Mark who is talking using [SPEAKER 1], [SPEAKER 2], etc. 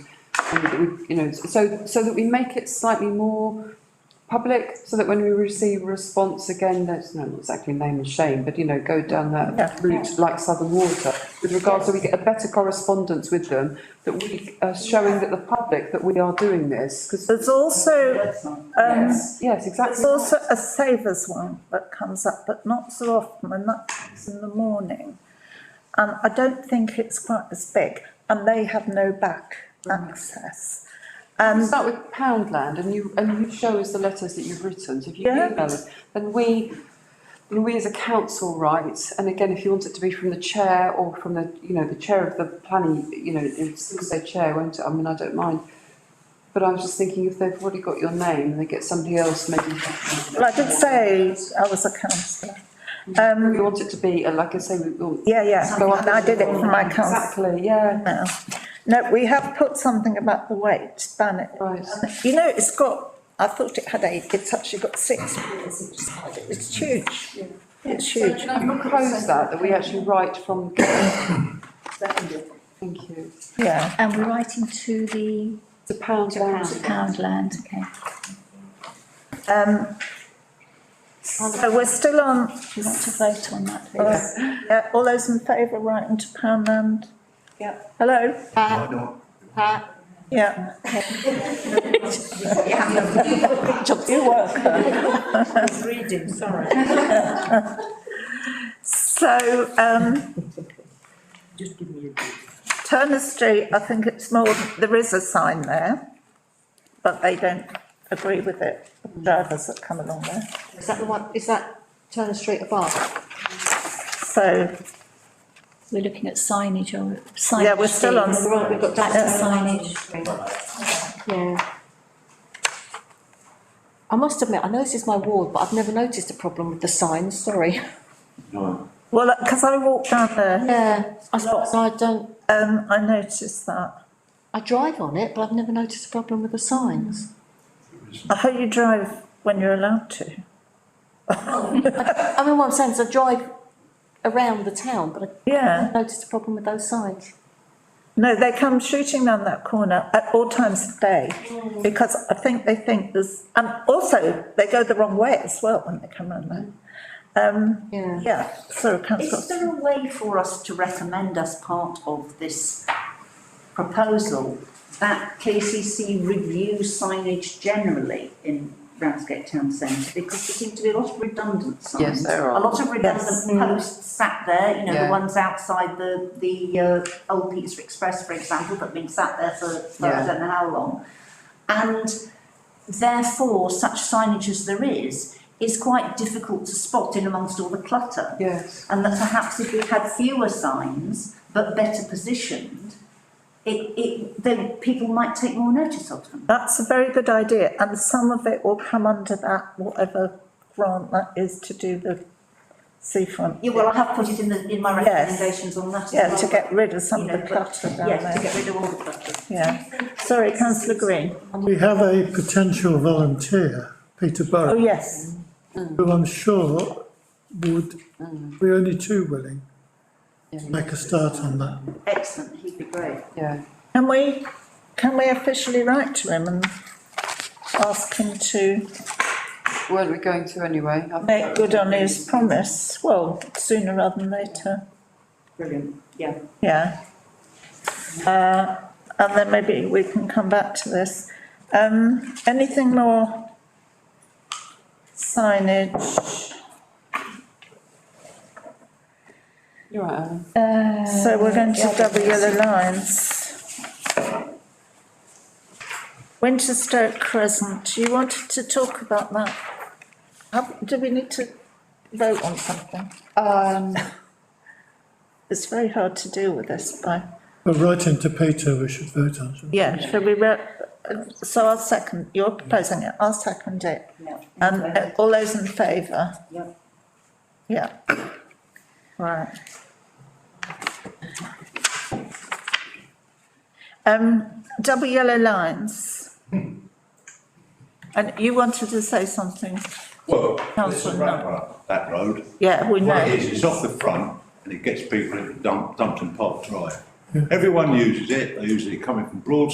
[SPEAKER 1] and that we- you know, so, so that we make it slightly more public, so that when we receive a response again, that's not exactly name and shame, but you know, go down
[SPEAKER 2] Yeah.
[SPEAKER 1] that route like Southern Water, with regards, so we get a better correspondence with them, that we are showing that the public that we are doing this, because,
[SPEAKER 2] There's also, um,
[SPEAKER 1] yes, yes, exactly.
[SPEAKER 2] there's also a savers one that comes up, but not so often, and that's in the morning. And I don't think it's quite as big, and they have no back access. Um,
[SPEAKER 1] We
[SPEAKER 2] And
[SPEAKER 1] start with Poundland and you, and you show us the letters that you've written, so if you
[SPEAKER 2] Yeah.
[SPEAKER 1] email us, then we, then we as a council write, and again, if you want it to be from the chair or from the, you know, the chair of the planning, you know, it's gonna say chair, won't it, I mean, I don't mind. But I was just thinking, if they've already got your name, they get somebody else maybe.
[SPEAKER 2] well, I did say I was a councillor.
[SPEAKER 1] We
[SPEAKER 2] Um,
[SPEAKER 1] want it to be, uh, like I say, we want.
[SPEAKER 2] yeah, yeah,
[SPEAKER 1] go up
[SPEAKER 2] and I did it for my council
[SPEAKER 1] Exactly, yeah,
[SPEAKER 2] now. No, we have put something about the weight, ban it.
[SPEAKER 1] right,
[SPEAKER 2] You know, it's got, I thought it had eight, it's actually got six. wheels each side. It's huge. It's huge.
[SPEAKER 1] can I propose that, that we actually write from, thank you,
[SPEAKER 2] Yeah,
[SPEAKER 3] And we're writing to the
[SPEAKER 1] to Poundland.
[SPEAKER 3] to Poundland, okay.
[SPEAKER 2] um, so we're still on,
[SPEAKER 3] Do you want to vote on that,
[SPEAKER 2] all
[SPEAKER 3] please?
[SPEAKER 2] right, yeah, all those in favour writing to Poundland?
[SPEAKER 1] Yeah.
[SPEAKER 2] Hello?
[SPEAKER 4] Why not?
[SPEAKER 2] Yeah. You work.
[SPEAKER 5] reading, sorry.
[SPEAKER 2] So, um,
[SPEAKER 5] Just give me a
[SPEAKER 2] Turner Street, I think it's more, there is a sign there, but they don't agree with it, the drivers that come along there.
[SPEAKER 6] Is that the one, is that Turner Street above?
[SPEAKER 2] So,
[SPEAKER 3] We're looking at signage or signage.
[SPEAKER 2] yeah, we're still on.
[SPEAKER 6] Right, we've got
[SPEAKER 3] Back
[SPEAKER 6] that
[SPEAKER 3] to signage.
[SPEAKER 6] Yeah. I must admit, I know this is my ward, but I've never noticed a problem with the signs, sorry.
[SPEAKER 4] No.
[SPEAKER 2] Well, because I walked down there,
[SPEAKER 6] Yeah, I suppose I don't,
[SPEAKER 2] um, I noticed that.
[SPEAKER 6] I drive on it, but I've never noticed a problem with the signs.
[SPEAKER 2] I hope you drive when you're allowed to.
[SPEAKER 6] I mean, what I'm saying is I drive around the town, but I
[SPEAKER 2] Yeah,
[SPEAKER 6] haven't noticed a problem with those signs.
[SPEAKER 2] no, they come shooting down that corner at all times of day because I think they think there's, and also they go the wrong way as well when they come around there. Um,
[SPEAKER 6] Yeah.
[SPEAKER 2] yeah, so
[SPEAKER 5] Is
[SPEAKER 2] councillor,
[SPEAKER 5] there a way for us to recommend as part of this proposal that KCC review signage generally in Ramsgate Town Centre? Because there seem to be a lot of redundant signs.
[SPEAKER 1] Yes, there are. Mm.
[SPEAKER 5] A lot of
[SPEAKER 2] Yes.
[SPEAKER 5] redundant posts sat there, you know,
[SPEAKER 1] Yeah.
[SPEAKER 5] the ones outside the, the, uh, Old Peter Express, for example, that have been sat there for, for I
[SPEAKER 1] Yeah.
[SPEAKER 5] don't know how long. And therefore, such signage as there is, is quite difficult to spot in amongst all the clutter
[SPEAKER 1] Yes.
[SPEAKER 5] and that perhaps if we had fewer signs but better positioned, it, it, then people might take more notice of them.
[SPEAKER 2] that's a very good idea and some of it will come under that, whatever grant that is to do the seafront.
[SPEAKER 5] Yeah, well, I have put it in the, in my
[SPEAKER 2] Yes.
[SPEAKER 5] recommendations on that as well.
[SPEAKER 2] Yeah, to get rid of some of
[SPEAKER 5] you
[SPEAKER 2] the
[SPEAKER 5] know, but-
[SPEAKER 2] clutter down
[SPEAKER 5] Yes, to
[SPEAKER 2] there,
[SPEAKER 5] get rid of all the clutter.
[SPEAKER 2] yeah. Sorry, councillor Green.
[SPEAKER 7] We have a potential volunteer, Peter
[SPEAKER 2] Oh,
[SPEAKER 7] Burrow,
[SPEAKER 2] yes.
[SPEAKER 7] who I'm sure would be only too willing to make a start on that.
[SPEAKER 5] Excellent, he'd be great.
[SPEAKER 1] Yeah,
[SPEAKER 2] Can we, can we officially write to him and ask him to
[SPEAKER 1] weren't we going to anyway? I-
[SPEAKER 2] make good on his promise? Well, sooner rather than later,
[SPEAKER 5] Brilliant, yeah.
[SPEAKER 2] yeah. Uh, and then maybe we can come back to this. Um, anything more? Signage,
[SPEAKER 1] You're right, Alan.
[SPEAKER 2] so we're going to double yellow lines. Winchester Crescent, you wanted to talk about that? Have- Do we need to vote on something?
[SPEAKER 6] Um,
[SPEAKER 2] It's very hard to deal with this by,
[SPEAKER 7] But writing to Peter, we should vote on. shouldn't we?
[SPEAKER 2] yeah, shall we, re- uh, so I'll second, you're proposing it, I'll second it.
[SPEAKER 5] Yeah.
[SPEAKER 2] And uh, all those in favour?
[SPEAKER 5] Yeah.
[SPEAKER 2] Yeah. Right. Um, double yellow lines. And you wanted to say something,
[SPEAKER 4] Well, there's a
[SPEAKER 2] Councillor Knutt.
[SPEAKER 4] ramp up that road.
[SPEAKER 2] yeah, we
[SPEAKER 4] What it
[SPEAKER 2] know,
[SPEAKER 4] is, it's off the front and it gets people into Dump, Dumpton Park Drive. Everyone uses it, they use it coming from Broad